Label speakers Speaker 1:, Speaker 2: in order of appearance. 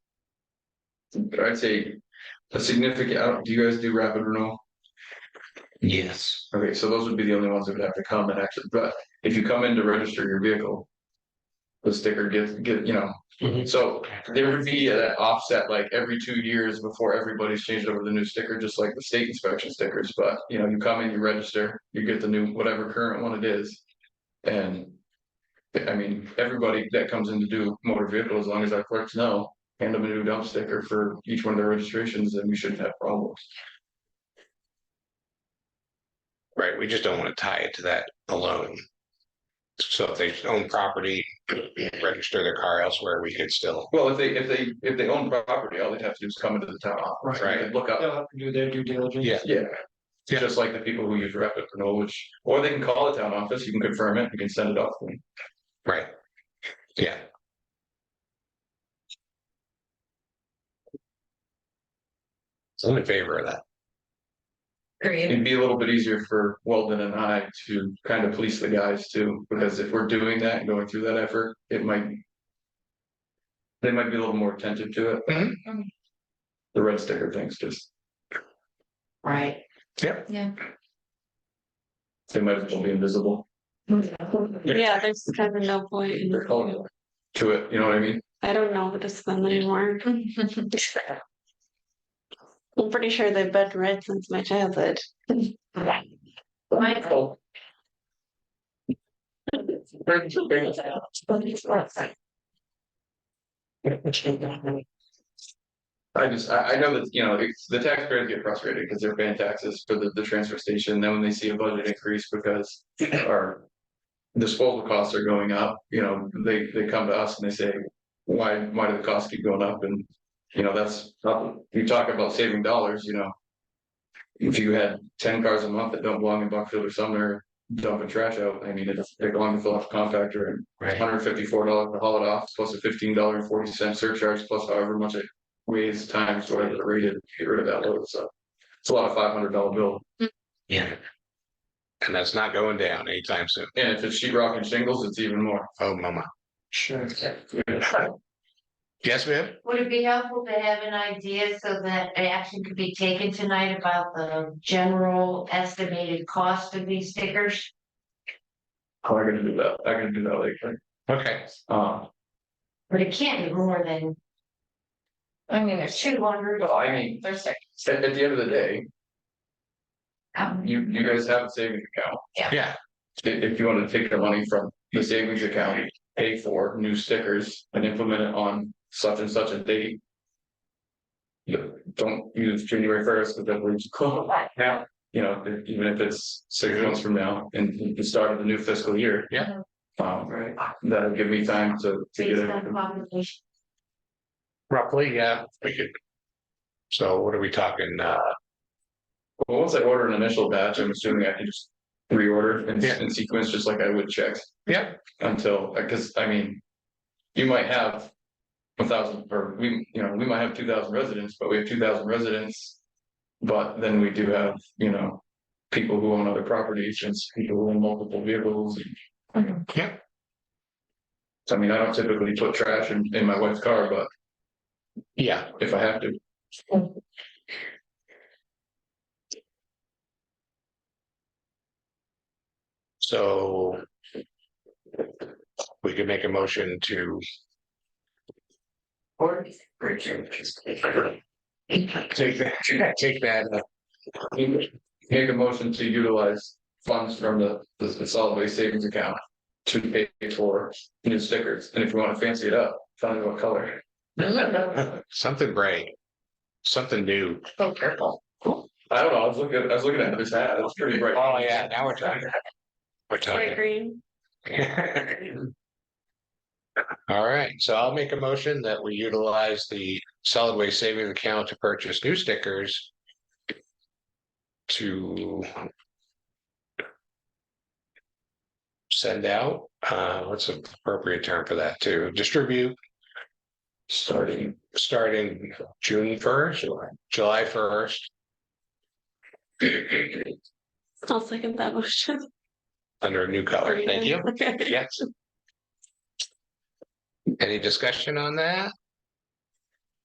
Speaker 1: I'd say a significant, I don't- do you guys do rapid renewal?
Speaker 2: Yes.
Speaker 1: Okay, so those would be the only ones that would have to come and actually, but if you come in to register your vehicle. The sticker gets, get, you know,
Speaker 2: Mhm.
Speaker 1: so there would be that offset like every two years before everybody's changed over to the new sticker, just like the state inspection stickers, but you know, you come in, you register, you get the new, whatever current one it is. And. I mean, everybody that comes in to do motor vehicle, as long as our clerks know, hand them a new dump sticker for each one of their registrations, then we shouldn't have problems.
Speaker 2: Right, we just don't want to tie it to that alone. So if they own property, register their car elsewhere, we could still,
Speaker 1: Well, if they, if they, if they own property, all they'd have to do is come into the town office,
Speaker 2: Right.
Speaker 1: right, look up,
Speaker 3: They'll have to do their due diligence.
Speaker 2: Yeah.
Speaker 1: yeah.
Speaker 2: Yeah.
Speaker 1: Just like the people who use rapid renewal, which, or they can call the town office, you can confirm it, you can send it off. to them.
Speaker 2: right? Yeah, so I'm in favor of that.
Speaker 4: Great.
Speaker 1: It'd be a little bit easier for Weldon and I to kind of police the guys too, because if we're doing that and going through that effort, it might. They might be a little more attentive to it.
Speaker 4: Mhm.
Speaker 1: The red sticker things, just,
Speaker 4: Right.
Speaker 2: Yep.
Speaker 4: Yeah.
Speaker 1: they might as well be invisible,
Speaker 5: Yeah, there's kind of no point.
Speaker 1: they're
Speaker 5: in-
Speaker 1: colorblind to it, you know what I mean?
Speaker 5: I don't know what it's them anymore. I'm pretty sure they've been red since my childhood.
Speaker 4: Michael.
Speaker 1: I just, I, I know that, you know, it's, the taxpayers get frustrated because they're paying taxes for the, the transfer station, then when they see a budget increase because our. Disposal costs are going up, you know, they, they come to us and they say, why, why do the costs keep going up and. You know, that's, you talk about saving dollars, you know. If you had ten cars a month that don't belong in Buckfield or Sumner, dumping trash out, I mean, it's, they're going to fill up a compactor and hundred fifty-four dollars to haul it off, plus a fifteen dollar and forty cent surcharge, plus however much it weighs times whatever the rate is, to get rid of that load, so. It's a lot of five hundred dollar bill,
Speaker 2: Yeah. And that's not going down anytime soon.
Speaker 1: and if it's sheet rock and shingles, it's even more.
Speaker 2: Oh, mama.
Speaker 3: Sure.
Speaker 2: Yes, ma'am?
Speaker 6: Would it be helpful to have an idea so that action could be taken tonight about the general estimated cost of these stickers?
Speaker 1: How am I gonna do that? I can do that later.
Speaker 2: Okay,
Speaker 1: Um,
Speaker 6: But it can't be more than
Speaker 4: I mean, there's
Speaker 6: two hundred.
Speaker 1: well, I mean,
Speaker 4: there's like,
Speaker 1: at, at the end of the day,
Speaker 4: Um,
Speaker 1: you, you guys have a savings account.
Speaker 2: yeah,
Speaker 1: I- If, you wanna take the money from the savings account, pay for new stickers and implement it on such and such a date. You don't use January first, because that leaves close. Now, you know, e- even if it's six months from now and you can start of the new fiscal year.
Speaker 2: Yeah.
Speaker 1: Um, that'll give me time to, to get
Speaker 6: Based
Speaker 1: it.
Speaker 6: on population.
Speaker 2: roughly, yeah, we could. So what are we talking, uh,
Speaker 1: Well, once I order an initial batch, I'm assuming I can just reorder and,
Speaker 2: Yeah.
Speaker 1: and sequence just like I would checks.
Speaker 2: Yeah.
Speaker 1: Until, because I mean, you might have a thousand, or we, you know, we might have two thousand residents, but we have two thousand residents. But then we do have, you know, people who own other properties and people who own multiple vehicles. and-
Speaker 2: Yeah.
Speaker 1: I mean, I don't typically put trash in, in my wife's car, but
Speaker 2: yeah,
Speaker 1: if I have to,
Speaker 2: so. We could make a motion to
Speaker 4: or
Speaker 2: Take that, take that, uh,
Speaker 1: Make a motion to utilize funds from the, the the solid waste savings account to pay for new stickers, and if you wanna fancy it up, tell me what color.
Speaker 2: uh, something brave. Something new.
Speaker 4: so purple.
Speaker 1: I don't know, I was looking, I was looking at this hat, it's pretty bright.
Speaker 2: Oh, yeah, now we're talking. We're
Speaker 5: Or
Speaker 2: talking.
Speaker 5: green.
Speaker 2: All right, so I'll make a motion that we utilize the solid waste savings account to purchase new stickers. To. Send out, uh, what's the appropriate term for that to distribute
Speaker 1: Starting,
Speaker 2: starting June first, July first.
Speaker 5: I'll second that motion.
Speaker 2: Under a new color, thank you.
Speaker 5: Okay.
Speaker 2: Yes. Any discussion on that?